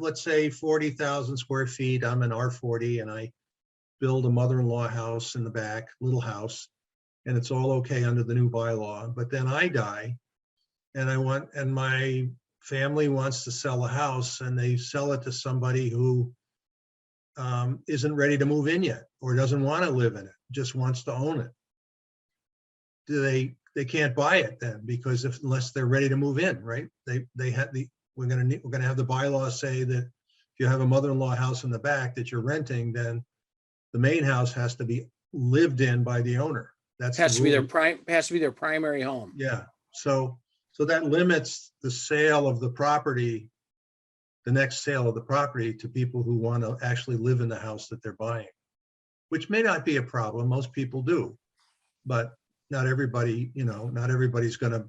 let's say, forty thousand square feet, I'm an R forty and I build a mother-in-law house in the back, little house, and it's all okay under the new bylaw, but then I die and I want, and my family wants to sell a house and they sell it to somebody who um, isn't ready to move in yet or doesn't want to live in it, just wants to own it. Do they, they can't buy it then because if, unless they're ready to move in, right? They, they had the, we're gonna need, we're gonna have the bylaw say that if you have a mother-in-law house in the back that you're renting, then the main house has to be lived in by the owner. That's. the Has to be their rule. prime, has to be their primary home. Yeah, so, so that limits the sale of the property, the next sale of the property to people who want to actually live in the house that they're buying, which may not be a problem. Most people do. But not everybody, you know, not everybody's going to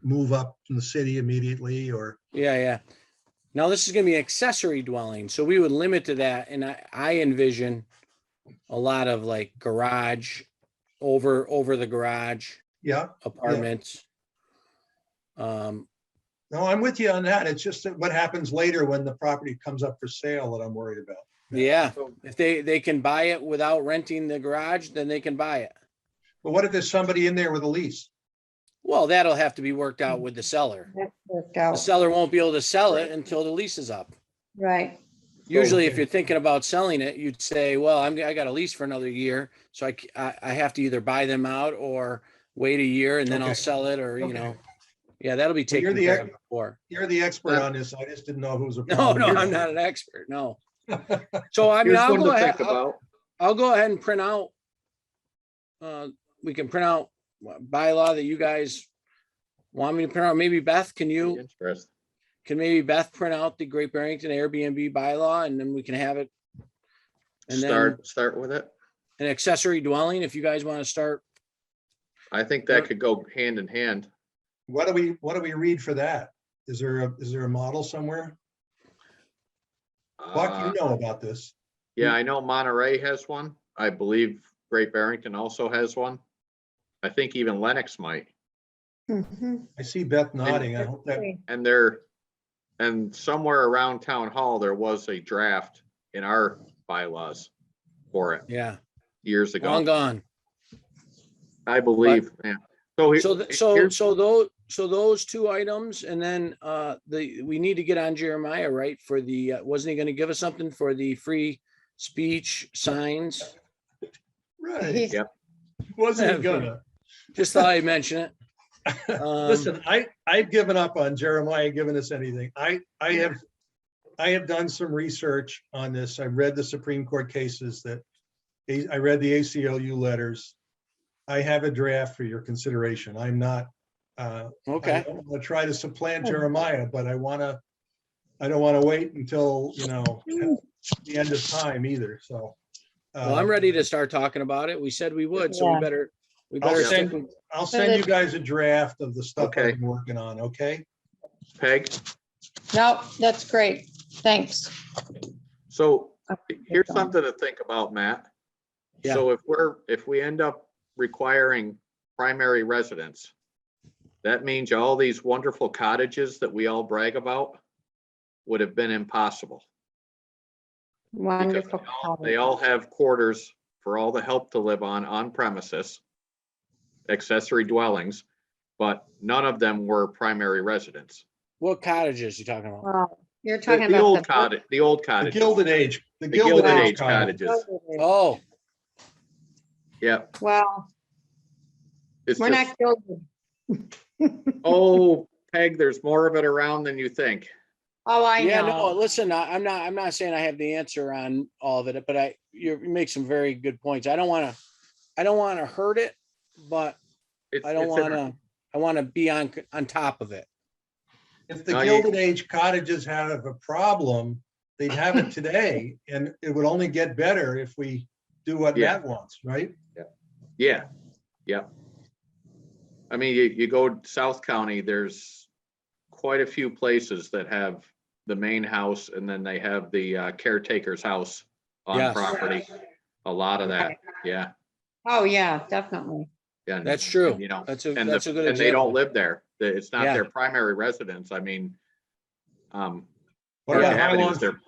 move up from the city immediately or, Yeah, yeah. Now this is gonna be accessory dwelling, so we would limit to that, and I, I envision a lot of like garage, over, over the garage yeah, apartments. Um, no, I'm with you on that. It's just that what happens later when the property comes up for sale that I'm worried about. yeah, if they, they can buy it without renting the garage, then they can buy it. But what if there's somebody in there with a lease? Well, that'll have to be worked out with the seller. That's worked The out, seller won't be able to sell it until the lease is up. right. Usually, if okay. you're thinking about selling it, you'd say, well, I'm, I got a lease for another year. So I, c- I- I have to either buy them out or wait a year and then I'll Okay. sell it or, you Okay. know. Yeah, that'll be Well, you're taken the care of ex- before. You're the expert on this. I just didn't know who was a. Uh, No, problem. no, You're I'm the- not an expert, no. So I mean, Here's I'll one go to ahead, think I'll- about. I'll go ahead and print out. Uh, we can print out wha- bylaw that you guys want me to print out. Maybe Beth, can you? Interest. can maybe Beth print out the Great Barrington Airbnb bylaw and then we can have it. And then Start, start with it. an accessory dwelling, if you guys want to start, I think Yeah. that could go hand in hand. What do we, what do we read for that? Is there a, is there a model somewhere? Buck, Uh, you know about this. Yeah, I know Monterey has one. I believe Great Barrington also has one. I think even Lennox might, Mhm. I see Beth nodding. I hope that, and there, and somewhere around Town Hall, there was a draft in our bylaws for it yeah, years long ago, gone. I believe, yeah. So. he- So, th- so, here's- so those, so those two items and then, uh, the, we need to get on Jeremiah, right? For the, uh, wasn't he going to give us something for the free speech signs? right, He's- wasn't he gonna? Just thought I'd mention it. Um, Listen, I, I've given up on Jeremiah giving us anything. I, I have, I have done some research on this. I read the Supreme Court cases that, I read the ACLU letters. I have a draft for your consideration. I'm not, uh, I okay, don't want to try to supplant Jeremiah, but I want to, I don't want to wait until, you know, the end of time either, so. uh, well, um, I'm ready to start talking about it. We said we would, so we Yeah. better, we I'll better stick with send, I'll send you guys a draft of the stuff Okay. I've been working on, okay? Peg, No, that's great, thanks. so Okay, here's John. something to think about, Matt. Yeah. So if we're, if we end up requiring primary residence, that means all these wonderful cottages that we all brag about would have been impossible. because Wonderful. they all- They all have quarters for all the help to live on, on premises, accessory dwellings, but none of them were primary residence. what cottages you talking about? Wow, You're The talking the about. old cottage, the old The cottage, the Gilded Age, the Gilded Age Cottage. cottages, Oh, yeah. Wow, it's we're just- not gilded. Oh, Peg, there's more of it around than you think. Oh, I yeah, no, know. listen, I- I'm not, I'm not saying I have the answer on all of it, but I, you make some very good points. I don't want to, I don't want to hurt it, but It's- I don't it's in want our- to, I want to be on, on top of it. If the No, you- Gilded Age cottages had a problem, they'd have it today, and it would only get better if we do what Yeah. Matt wants, right? Yeah, yeah. I mean, you, you go South County, there's quite a few places that have the main house and then they have the uh, caretaker's house on Yes. property. A lot of that, yeah, Oh, yeah, definitely. yeah. and- That's true. You know, That's a, and that's a the, good and they don't example. live there. That It's not Yeah. their primary residence. I mean, um, What about have it bylaw as their